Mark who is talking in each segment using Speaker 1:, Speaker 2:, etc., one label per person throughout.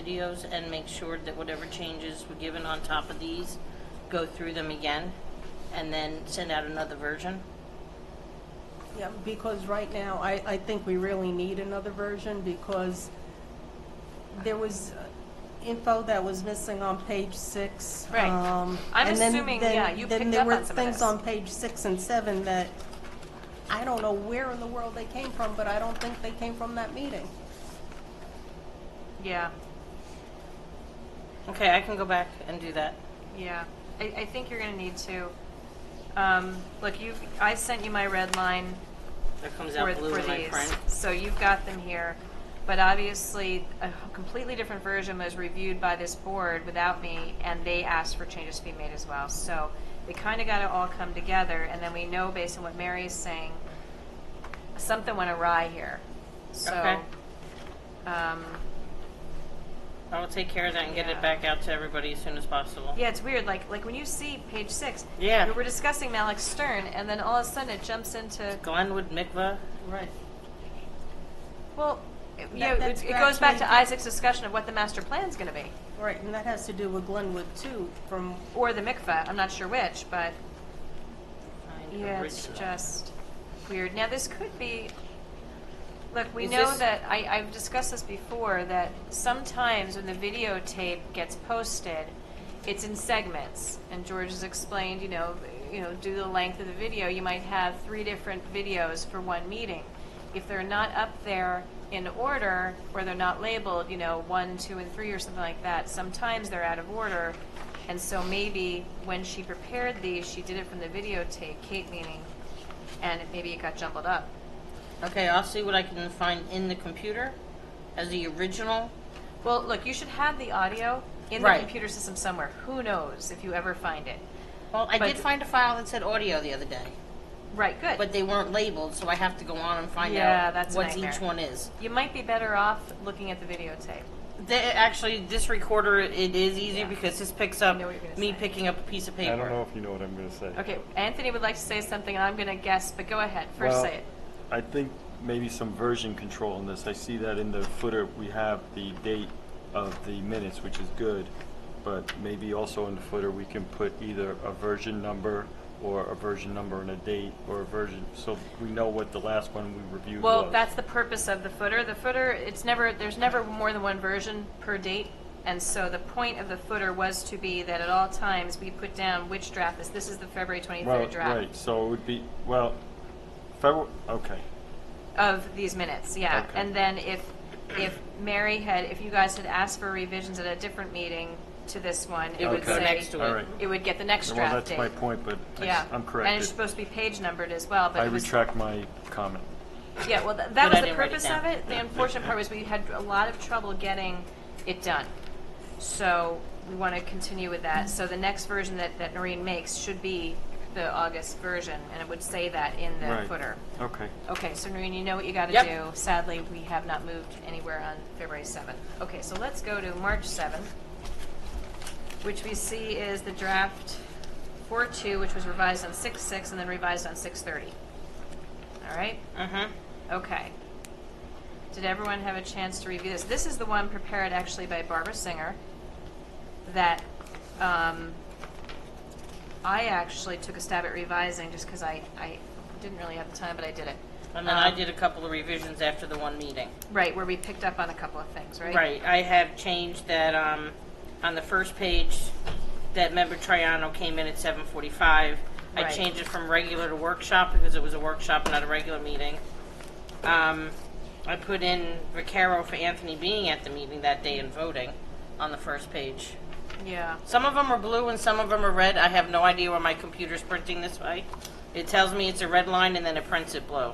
Speaker 1: videos and make sure that whatever changes were given on top of these, go through them again, and then send out another version?
Speaker 2: Yeah, because right now, I, I think we really need another version because there was uh, info that was missing on page six.
Speaker 3: Right.
Speaker 2: um,
Speaker 3: I'm
Speaker 2: and then-
Speaker 3: assuming,
Speaker 2: then-
Speaker 3: yeah, you picked up on some of
Speaker 2: Then there were things
Speaker 3: this.
Speaker 2: on page six and seven that, I don't know where in the world they came from, but I don't think they came from that meeting.
Speaker 3: Yeah,
Speaker 1: Okay, I can go back and do that.
Speaker 3: yeah. I, I think you're gonna need to, um, look, you, I sent you my red line
Speaker 1: That comes
Speaker 3: for,
Speaker 1: out blue
Speaker 3: for
Speaker 1: in my
Speaker 3: these.
Speaker 1: print.
Speaker 3: So you've got them here, but obviously a completely different version was reviewed by this board without me, and they asked for changes to be made as well. So they kind of got to all come together, and then we know based on what Mary is saying, something went awry here.
Speaker 1: Okay.
Speaker 3: So, um,
Speaker 1: I will take care of that and get
Speaker 3: Yeah.
Speaker 1: it back out to everybody as soon as possible.
Speaker 3: Yeah, it's weird. Like like when you see page six,
Speaker 1: Yeah.
Speaker 3: we we're discussing Malik Stern, and then all of a sudden it jumps into
Speaker 1: Glenwood Mikva,
Speaker 2: Right.
Speaker 3: well, it, you know,
Speaker 2: that
Speaker 3: it, it
Speaker 2: scratch
Speaker 3: goes back to
Speaker 2: me.
Speaker 3: Isaac's discussion of what the master plan's going to be,
Speaker 2: Right, and that has to do with Glenwood too, from,
Speaker 3: or the mikveh. I'm not sure which, but
Speaker 1: find
Speaker 3: yeah, it's
Speaker 1: original.
Speaker 3: just weird. Now this could be. Look, we
Speaker 1: Is
Speaker 3: know
Speaker 1: this-
Speaker 3: that I, I've discussed this before. That sometimes when the videotape gets posted, it's in segments, and George has explained. You know, you know, due to the length of the video, you might have three different videos for one meeting. If they're not up there in order, or they're not labeled, you know, one, two, and three, or something like that, sometimes they're out of order. And so maybe when she prepared these, she did it from the videotape, Kate meaning, and it- maybe it got jumbled up.
Speaker 1: Okay, I'll see what I can find in the computer as the original.
Speaker 3: Well, look, you should have the audio in the
Speaker 1: Right.
Speaker 3: computer system somewhere. Who knows if you ever find it?
Speaker 1: Well, I
Speaker 3: But-
Speaker 1: did find a file that said audio the other day,
Speaker 3: Right, good.
Speaker 1: but they weren't labeled, so I have to go on and find
Speaker 3: Yeah,
Speaker 1: out
Speaker 3: that's a
Speaker 1: what
Speaker 3: nightmare.
Speaker 1: each one is.
Speaker 3: you might be better off looking at the videotape.
Speaker 1: They, actually, this recorder it is easy
Speaker 3: Yeah.
Speaker 1: because this picks up
Speaker 3: know what you're gonna
Speaker 1: me
Speaker 3: say.
Speaker 1: picking up a piece of paper.
Speaker 4: I don't know if you know what I'm going to say.
Speaker 3: Okay, Anthony would like to say something, and I'm going to guess, but go ahead. First,
Speaker 4: Well,
Speaker 3: say it.
Speaker 4: I think maybe some version control in this. I see that in the footer we have the date of the minutes, which is good, but maybe also in the footer we can put either a version number or a version number and a date or a version, so we know what the last one we reviewed was.
Speaker 3: Well, that's the purpose of the footer. The footer, it's never, there's never more than one version per date. And so the point of the footer was to be that at all times, we put down which draft is, this is the February
Speaker 4: Well,
Speaker 3: 23rd
Speaker 4: right,
Speaker 3: draft
Speaker 4: so it would be, well, February, okay,
Speaker 3: of these minutes, yeah.
Speaker 4: Okay.
Speaker 3: And then if, if Mary had, if you guys had asked for revisions at a different meeting to this one, it
Speaker 1: It
Speaker 3: would
Speaker 1: would go
Speaker 3: say,
Speaker 1: next to
Speaker 4: all right.
Speaker 3: it would get the next
Speaker 4: Well,
Speaker 3: draft
Speaker 4: that's my
Speaker 3: date.
Speaker 4: point, but I s-
Speaker 3: Yeah.
Speaker 4: I'm
Speaker 3: And it's
Speaker 4: corrected.
Speaker 3: supposed to be page numbered as well, but
Speaker 4: I
Speaker 3: it was
Speaker 4: retract my comment.
Speaker 3: Yeah, well, th-
Speaker 1: But I
Speaker 3: that was the
Speaker 1: didn't write it
Speaker 3: purpose
Speaker 1: down.
Speaker 3: of it. The unfortunate part was we had a lot of trouble getting it done. So we want to continue with that. So the next version that, that Noreen makes should be the August version, and it would say that in the
Speaker 4: Right.
Speaker 3: footer.
Speaker 4: Okay.
Speaker 3: Okay, so Noreen, you know what you got to
Speaker 1: Yep.
Speaker 3: do. Sadly, we have not moved anywhere on February 7th. Okay, so let's go to March 7th, which we see is the draft 4-2, which was revised on 6-6 and then revised on 6-30. All right?
Speaker 1: Mhm.
Speaker 3: Okay. Did everyone have a chance to review this? This is the one prepared actually by Barbara Singer that um, I actually took a stab at revising just because I, I didn't really have the time, but I did it.
Speaker 1: And then I
Speaker 3: Um,
Speaker 1: did a couple of revisions after the one meeting.
Speaker 3: Right, where we picked up on a couple of things, right?
Speaker 1: Right, I have changed that, um, on the first page, that member Triano came in at seven forty-five. I
Speaker 3: Right.
Speaker 1: changed it from regular to workshop because it was a workshop, not a regular meeting. Um, I put in Vaccaro for Anthony being at the meeting that day and voting on the first page.
Speaker 3: Yeah.
Speaker 1: Some of them are blue and some of them are red. I have no idea why my computer's printing this way. It tells me it's a red line and then it prints it blue.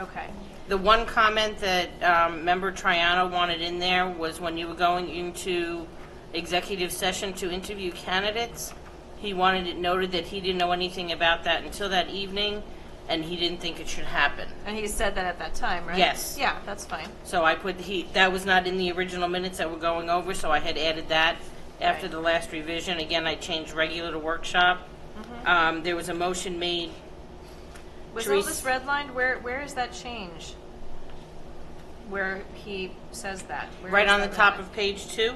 Speaker 3: Okay.
Speaker 1: The one comment that um, member Triano wanted in there was when you were going into executive session to interview candidates, he wanted it noted that he didn't know anything about that until that evening, and he didn't think it should happen.
Speaker 3: And he said that at that time, right?
Speaker 1: Yes.
Speaker 3: Yeah, that's fine.
Speaker 1: So I put he that was not in the original minutes that we're going over, so I had added that after
Speaker 3: Right.
Speaker 1: the last revision. Again, I changed regular to workshop. Um, there was a motion made.
Speaker 3: Was all
Speaker 1: Therese-
Speaker 3: this redlined? Where Where is that change? Where he says that? Where
Speaker 1: Right
Speaker 3: is
Speaker 1: on the
Speaker 3: that
Speaker 1: top
Speaker 3: redlined?
Speaker 1: of page two,